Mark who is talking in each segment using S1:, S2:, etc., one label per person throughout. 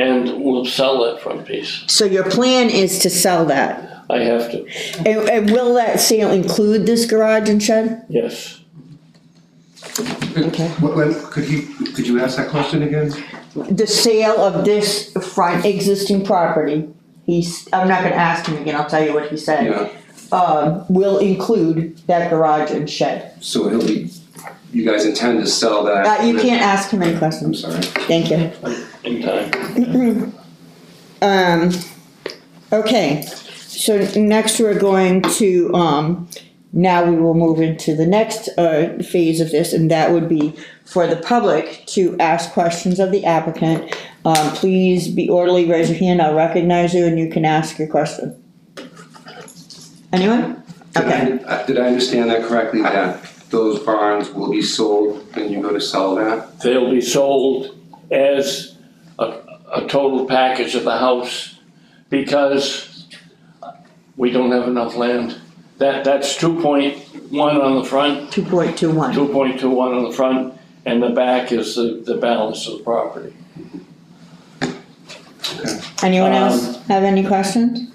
S1: and we'll sell that front piece.
S2: So your plan is to sell that?
S1: I have to,
S2: And, and will that sale include this garage and shed?
S1: yes.
S2: Okay.
S3: What, when, could you, could you ask that question again?
S2: The sale of this front existing property, he's, I'm not gonna ask him again, I'll tell you what he said. Um, will include that garage and shed.
S3: So he'll be, you guys intend to sell that?
S2: Uh, you can't ask him any
S3: I'm
S2: questions,
S3: sorry.
S2: thank you.
S1: In time,
S2: Um, okay, so next we're going to, um, now we will move into the next, uh, phase of this, and that would be for the public to ask questions of the applicant. Um, please be orderly, raise your hand, I'll recognize you, and you can ask your question. Anyone?
S3: Did I-
S2: Okay,
S3: uh, Did I understand that correctly, that those barns will be sold and you go to sell that?
S1: they'll be sold as a, a total package of the house because we don't have enough land. That, that's two point one on the front,
S2: two point two one.
S1: two point two one on the front, and the back is the, the balance of the property.
S2: Anyone
S1: Um,
S2: else have any questions?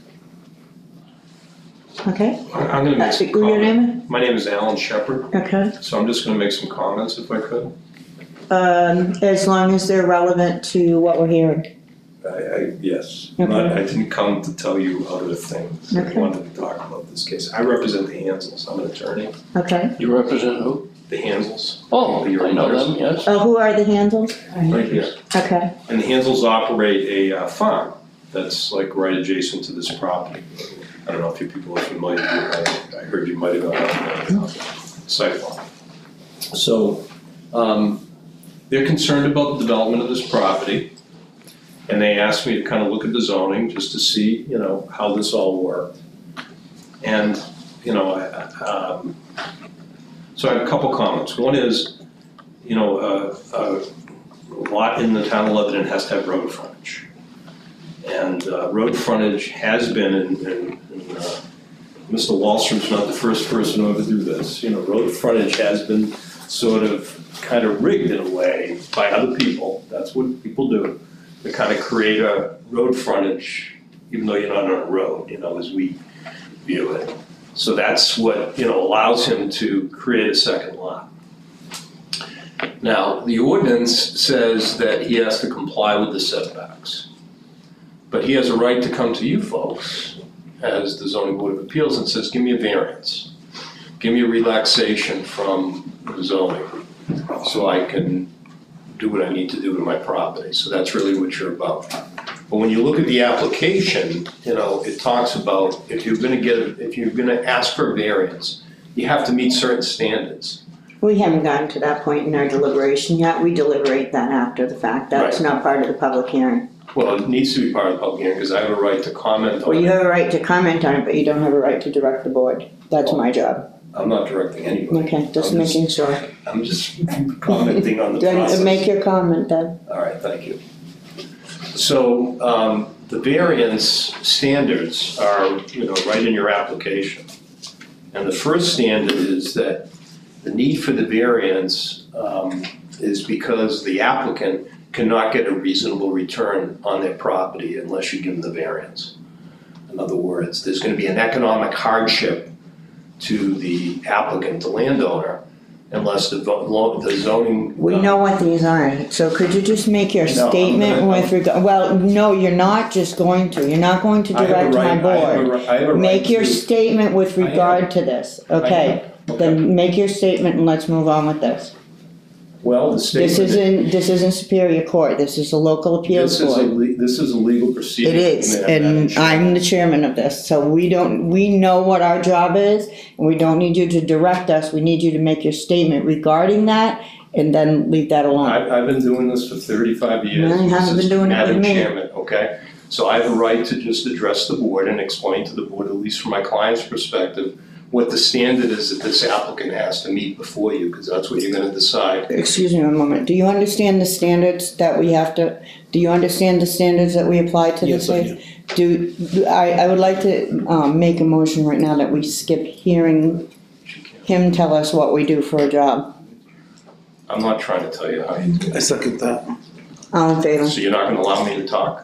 S2: Okay,
S4: I- I'm gonna make
S2: that's,
S4: some
S2: your
S4: comments.
S2: name,
S4: My name is Alan Shepard,
S2: okay.
S4: so I'm just gonna make some comments if I could.
S2: Um, as long as they're relevant to what we're hearing.
S4: I, I, yes,
S2: Okay.
S4: Not- I didn't come to tell you other things. I
S2: Okay.
S4: wanted to talk about this case. I represent the Hansels. I'm an attorney.
S2: Okay.
S1: You represent who?
S4: The Hansels,
S1: Oh, I know them, yes.
S2: Uh, who are the handles?
S4: right here.
S2: Okay.
S4: And the Hansels operate a uh, farm that's like right adjacent to this property. I don't know if you people are familiar, I, I heard you might have gone on the sidewalk. So, um, they're concerned about the development of this property. And they asked me to kind of look at the zoning just to see, you know, how this all worked. And, you know, I, I, um, so I have a couple comments. One is, you know, uh, uh, lot in the town of Lebanon has to have road frontage. And uh, road frontage has been, and, and and, uh, Mr. Wallstrom's not the first person to ever do this, you know, road frontage has been sort of kind of rigged in a way by other people, that's what people do. They kind of create a road frontage, even though you're not on a road, you know, as we view it. So that's what, you know, allows him to create a second lot. Now, the ordinance says that he has to comply with the setbacks. But he has a right to come to you folks, as the zoning board of appeals, and says, give me a variance. Give me a relaxation from the zoning, so I can do what I need to do to my property. So that's really what you're about. But when you look at the application, you know, it talks about if you're gonna get, if you're gonna ask for a variance, you have to meet certain standards.
S2: We haven't gotten to that point in our deliberation yet. We deliberate that after the fact. That's
S4: Right.
S2: not part of the public hearing.
S4: Well, it needs to be part of the public hearing, because I have a right to comment
S2: Well,
S4: on
S2: you
S4: it.
S2: have a right to comment on it, but you don't have a right to direct the board. That's my job.
S4: I'm not directing anybody.
S2: Okay, just making sure.
S4: I'm just commenting on the process.
S2: Then uh, make your comment then.
S4: All right, thank you. So, um, the variance standards are, you know, right in your application. And the first standard is that the need for the variance, um, is because the applicant cannot get a reasonable return on their property unless you give them the variance. In other words, there's gonna be an economic hardship to the applicant, the landowner, unless the vo- lo- the zoning. uh,
S2: We know what these are, so could you just make your
S4: No, I'm
S2: statement
S4: gonna-
S2: with regard, well, no, you're not just going to. You're not going to
S4: I have a
S2: direct my
S4: right- I have a
S2: board.
S4: ri- I have a right
S2: Make your
S4: to-
S2: statement with
S4: I have-
S2: regard to this,
S4: I
S2: okay?
S4: have- okay.
S2: Then make your statement and let's move on with this.
S4: Well, the
S2: This
S4: statement,
S2: isn't, this isn't Superior Court, this is a local appeals
S4: this is a,
S2: board.
S4: le- this is a legal proceeding.
S2: It is,
S4: Madam
S2: and
S4: Chair.
S2: I'm the chairman of this, so we don't, we know what our job is, and we don't need you to direct us, we need you to make your statement regarding that, and then leave that alone.
S4: I've, I've been doing this for thirty-five years.
S2: Well, you
S4: This
S2: haven't
S4: is
S2: been doing it with me.
S4: Madam Chairman, okay? So I have a right to just address the board and explain to the board, at least from my client's perspective, what the standard is that this applicant has to meet before you, because that's what you're gonna decide.
S2: Excuse me one moment, do you understand the standards that we have to, do you understand the standards that we apply to this?
S4: Yes, I
S2: case? do. Do, I, I would like to, um, make a motion right now that we skip hearing him tell us what we do for a job.
S4: I'm not trying to tell you how you do
S5: I second that.
S2: All in favor?
S4: it. So you're not gonna allow me to talk?